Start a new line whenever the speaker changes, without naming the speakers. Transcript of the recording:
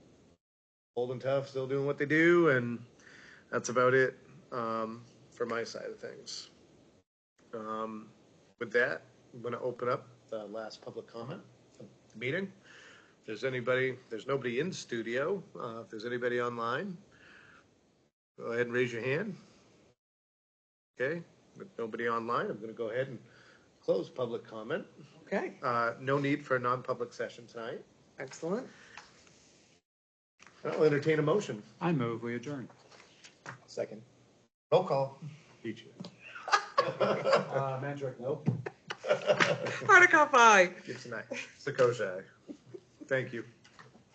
old and tough, still doing what they do, and that's about it um, for my side of things. Um, with that, I'm going to open up the last public comment of the meeting. If there's anybody, there's nobody in studio. Uh, if there's anybody online, go ahead and raise your hand. Okay, with nobody online, I'm going to go ahead and close public comment.
Okay,
Uh, no need for a non-public session tonight.
excellent.
I'll entertain a motion.
I move we adjourn.
Second. Roll call.
Beat Uh, Mandrake, nope.
Hardikoff, aye.
Gibson, aye. Sakosha, aye. Thank you.